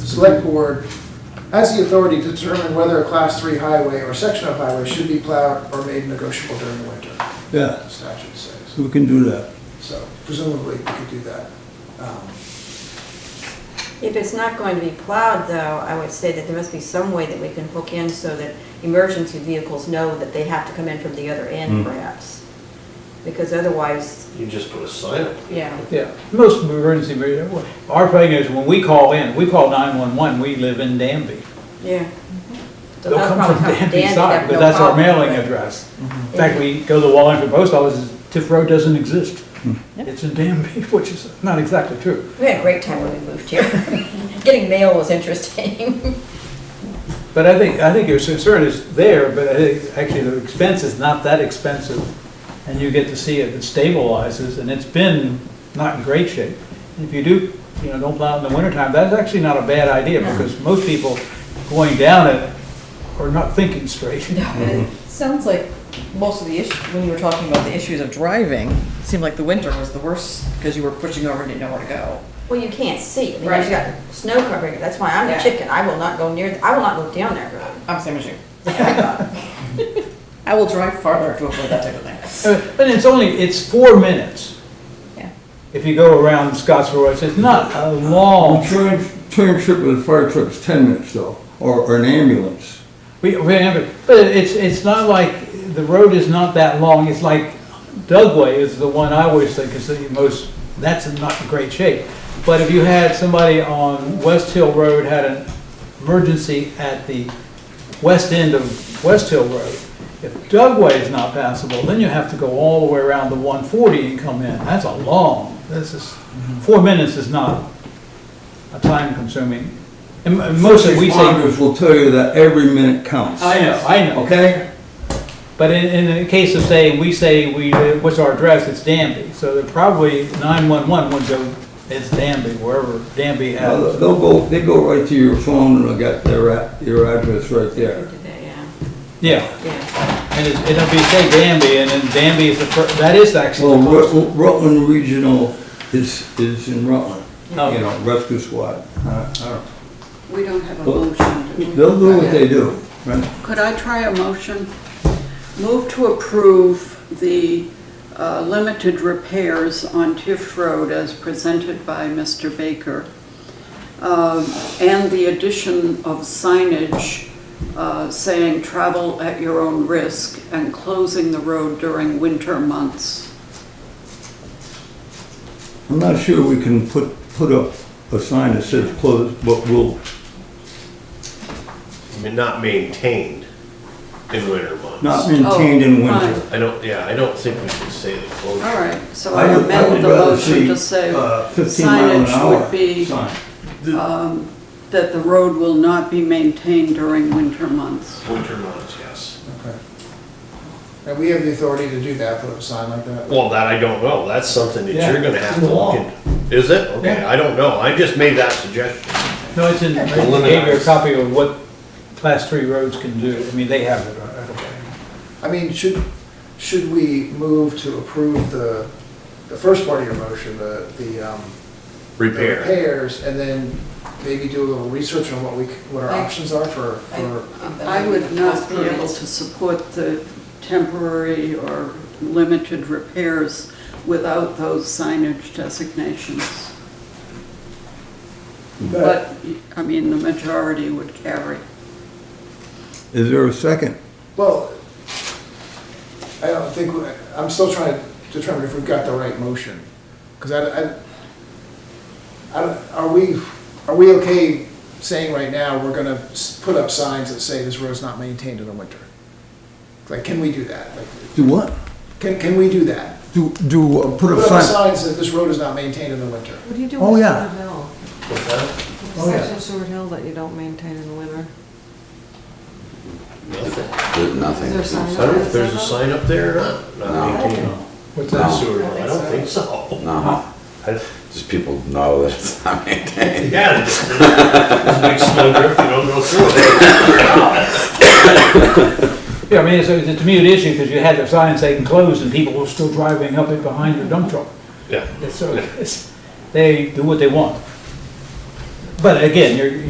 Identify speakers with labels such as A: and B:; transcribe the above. A: select board has the authority to determine whether a class three highway or section of highway should be plowed or made negotiable during the winter,
B: Yeah,
A: the statute says.
B: so we can do that.
A: So presumably, we could do that. Um,
C: If it's not going to be plowed, though, I would say that there must be some way that we can hook in so that emergency vehicles know that they have to come in from the other
D: Hmm.
C: end perhaps. Because otherwise,
E: You just put a sign up.
C: yeah,
D: Yeah, most emergency, our thing is when we call in, we call 911, we live in Danby.
C: yeah. So
D: They'll
C: they'll
D: come
C: probably
D: from Danby
C: have
D: side,
C: no
D: but that's our
C: problem
D: mailing
C: with it. Mm-hmm.
D: address. In fact, we go to the Wallingford Post Office, Tiff Road doesn't exist. It's in Danby, which is not exactly true.
C: We had a great time when we moved here. Getting mail was interesting.
D: But I think, I think your concern is there, but I think actually the expense is not that expensive. And you get to see if it stabilizes, and it's been not in great shape. If you do, you know, don't plow in the wintertime, that's actually not a bad idea,
C: No.
D: because most people going down it are not thinking straight.
F: It Sounds like most of the issue, when you were talking about the issues of driving, it seemed like the winter was the worst because you were pushing over and didn't know where to go.
C: Well, you can't see. I mean, there's got
F: Right.
C: snow covering it. That's why I'm a
F: Yeah.
C: chicken. I will not go near, I will not go down that road.
F: I'm same as you. I will drive farther to avoid that type of thing.
D: Uh, But it's only, it's four minutes.
F: Yeah.
D: If you go around Scottsville, Road, it's not
B: A
D: a long,
B: train, train trip with a fire truck's ten minutes though, or, or an ambulance.
D: we, we have it- but it's, it's not like, the road is not that long, it's like Dugway is the one I always think is the most, that's in not in great shape. But if you had somebody on West Hill Road had an emergency at the west end of West Hill Road, if Dugway is not passable, then you have to go all the way around the one forty and come in, that's a long, this is, four minutes is not a time consuming. And m- most of, we say,
B: Responders will tell you that every minute counts.
D: I know, I know.
B: Okay?
D: But in, in the case of saying, we say, we, what's our address, it's Danby, so they're probably nine-one-one would go, it's Danby, wherever Danby
B: Now,
D: has.
B: They'll go, they go right to your phone and they'll get their, a- your address right there.
C: Do that, yeah,
D: Yeah,
C: yeah.
D: and it's- it'll be, say Danby, and then Danby is the fir, that is actually
B: Well,
D: the first.
B: Rut- Rutland Regional is, is in Rutland, you
D: Okay.
B: know, rescue squad. I- I don't-
G: We don't have a
B: Well,
G: motion. do we?
B: They'll do what they do, right?
G: Could I try a motion? Move to approve the uh, limited repairs on Tiff Road as presented by Mr. Baker, um, and the addition of signage uh, saying "travel at your own risk" and closing the road during winter months.
B: I'm not sure we can put, put up a sign that says closed, but we'll,
E: I mean, not maintained in winter months.
B: not maintained in
G: Oh,
B: winter.
G: fine.
E: I don't, yeah, I don't think we should say the
G: All
E: closure.
G: right, so
B: I
G: I
B: would- I would
G: amend the
B: rather
G: motion
B: see,
G: to say
B: uh, 15 mile an
G: signage
B: hour
G: would be
B: sign.
G: that the road will not be maintained during winter months.
E: Winter months, yes.
A: okay. And we have the authority to do that, put up a sign like that.
E: Well, that I don't know. That's something that
D: Yeah,
E: you're gonna
D: it's
E: have
D: in
E: to
D: the law.
E: look into. Is it? Okay,
D: Yeah.
E: I don't know. I just made that suggestion.
D: No, it's in, I
E: Eliminate.
D: gave you a copy of what class three roads can do, I mean, they have it, I don't know.
A: I mean, should, should we move to approve the, the first part of your motion, the, the, um, the
E: Repair.
A: repairs, and then maybe do a little research on what we, c- what our
F: I-
A: options are for, for,
G: I would not be able to support the temporary or limited repairs without those signage designations.
A: but
G: But, I mean, the majority would carry.
B: Is there a second?
A: Well, I don't think, we- I'm still trying to determine if we've got the right motion. Because I, I- I, don't- are we, are we okay saying right now, we're gonna s- put up signs that say this road's not maintained in the winter? Like, can we do that? Like,
B: Do what?
A: Can, can we do that?
B: Do, do, uh, put
A: Put
B: a
A: up
B: sign?
A: signs that this road is not maintained in the winter.
H: What do you do
B: Oh,
H: with
B: yeah.
H: Seward Hill?
E: What's that?
H: The
B: Oh, yeah.
H: Section of Seward Hill that you don't maintain in the winter?
E: Nothing.
H: Is there a sign
E: I
H: up
E: don't know
H: there
E: if there's a
H: that says
E: sign up there or not.
I: No.
E: Not maintained.
D: What's
I: No.
D: that?
E: Sewer, I don't
H: so.
E: think so.
I: No,
E: I-
I: uh-huh. just people know that it's not maintained.
E: Yeah, it's it's a big snow drift, you don't go through it.
D: Yeah, I mean, it's, a- it's a mute issue, because you had the sign saying closed, and people were still driving up it behind your dump truck.
E: Yeah.
D: So it's- they do what they want. But again, you're,